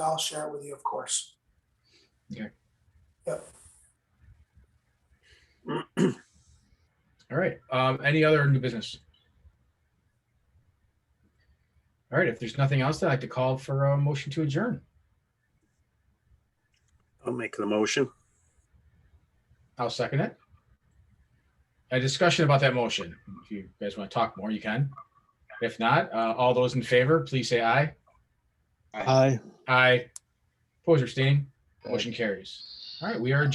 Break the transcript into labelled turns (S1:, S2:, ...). S1: share it with you, of course.
S2: All right. Um, any other new business? All right. If there's nothing else, I'd like to call for a motion to adjourn.
S3: I'll make the motion.
S2: I'll second it. A discussion about that motion. If you guys want to talk more, you can. If not, uh, all those in favor, please say aye.
S4: Aye.
S2: Aye. Opposed or abstaining? Motion carries. All right. We are.